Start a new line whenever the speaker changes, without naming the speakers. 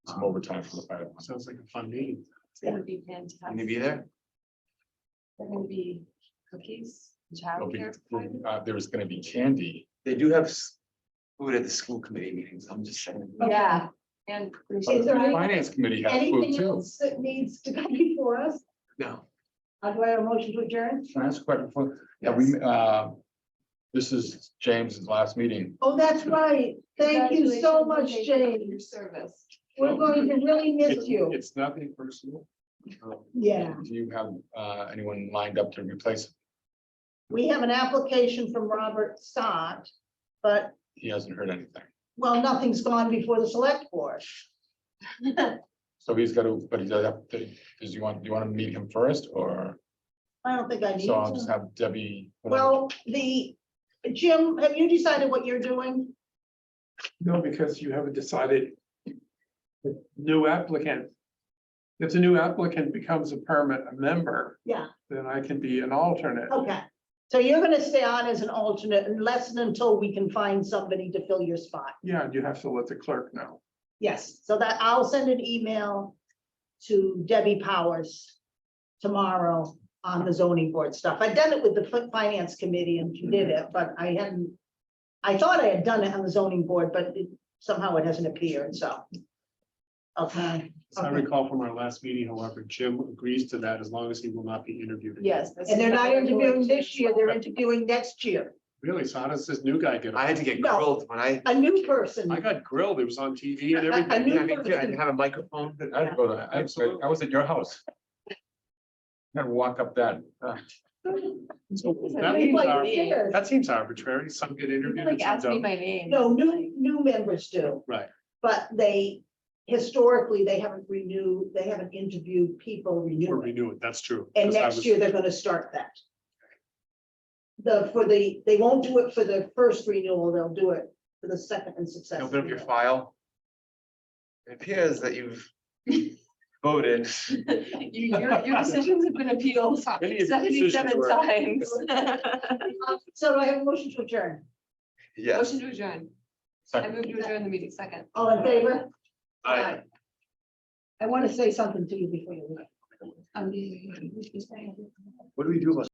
some overtime for the fire. department.
Sounds like a fun meeting.
It's gonna be
Can you
fantastic.
be there?
There gonna be cookies,
There'll be-
childcare. provided.
uh, There's gonna be candy.
They do have s- food at the school committee meetings. I'm just saying.
Yeah, and.
Is there
The
any-
Finance committee has food
Anything
too.
else that needs to come before us? Uh,
No.
I'd like a motion to adjourn.
Can I ask a question? before- Yeah, we, uh, this is James's last meeting.
Oh, that's right. Thank you so
Congratulations
much,
and thank you for Your
James.
service.
We're going to really miss
It's-
you.
It's nothing personal. Um,
Yeah,
Do you have uh, anyone lined up to replace?
we have an application from Robert Sott, but,
He hasn't heard anything.
well, nothing's gone before the select board.
So he's got to, but he does have, to- does you want, do you want to meet him first or?
I don't think I need
So I'll just
to.
have Debbie. put on-
Well, the, Jim, have you decided what you're doing?
No, because you haven't decided. The New applicant. If the new applicant becomes a permit, a member,
Yeah,
then I can be an alternate.
okay. So you're gonna stay on as an alternate unless and until we can find somebody to fill your spot.
Yeah, and you have to let the clerk know.
Yes, so that I'll send an email to Debbie Powers tomorrow on the zoning board stuff. I've done it with the fin- finance committee and she did
Mm-hmm.
it, but I hadn't. I thought I had done it on the zoning board, but it- somehow it hasn't appeared, so. Okay,
As I recall from our last meeting, however, Jim agrees to that as long as he will not be interviewed. again.
Yes. this
and they're
is
not
what we're
interviewing
doing.
this year, they're interviewing next year,
Really, so how does this new guy get? on?
I had to get
No.
grilled when I,
a new person.
I got grilled. It was on TV and
I- I
everything.
knew-
Yeah, me too. I didn't have a microphone.
I had to go to, I was- I was at your house. Had to walk up that. uh,
So
It's
that
like
seems
like
ar-
me.
Yes.
That seems arbitrary. Some get interviewed.
People,
and
Like
some
ask me
don't.
my name.
No, new, new members do.
Right.
But they, historically, they haven't renewed, they haven't interviewed people
Or
renewing.
renew it. That's true.
And
'Cause I
next
was-
year, they're gonna start that. The, for the, they won't do it for the first renewal, they'll do it for the second and
I
successive.
Open up your
renewal.
file. It appears that you've voted.
You- Your, your decisions have been appealed
Many of your decisions
seventy-seven
were-
times.
Uh, So do I have a motion to adjourn?
Yes.
Motion to adjourn. I
second.
move to adjourn the meeting second.
All in favor?
Aye.
I wanna say something to you before you leave.
Um,
What do we do about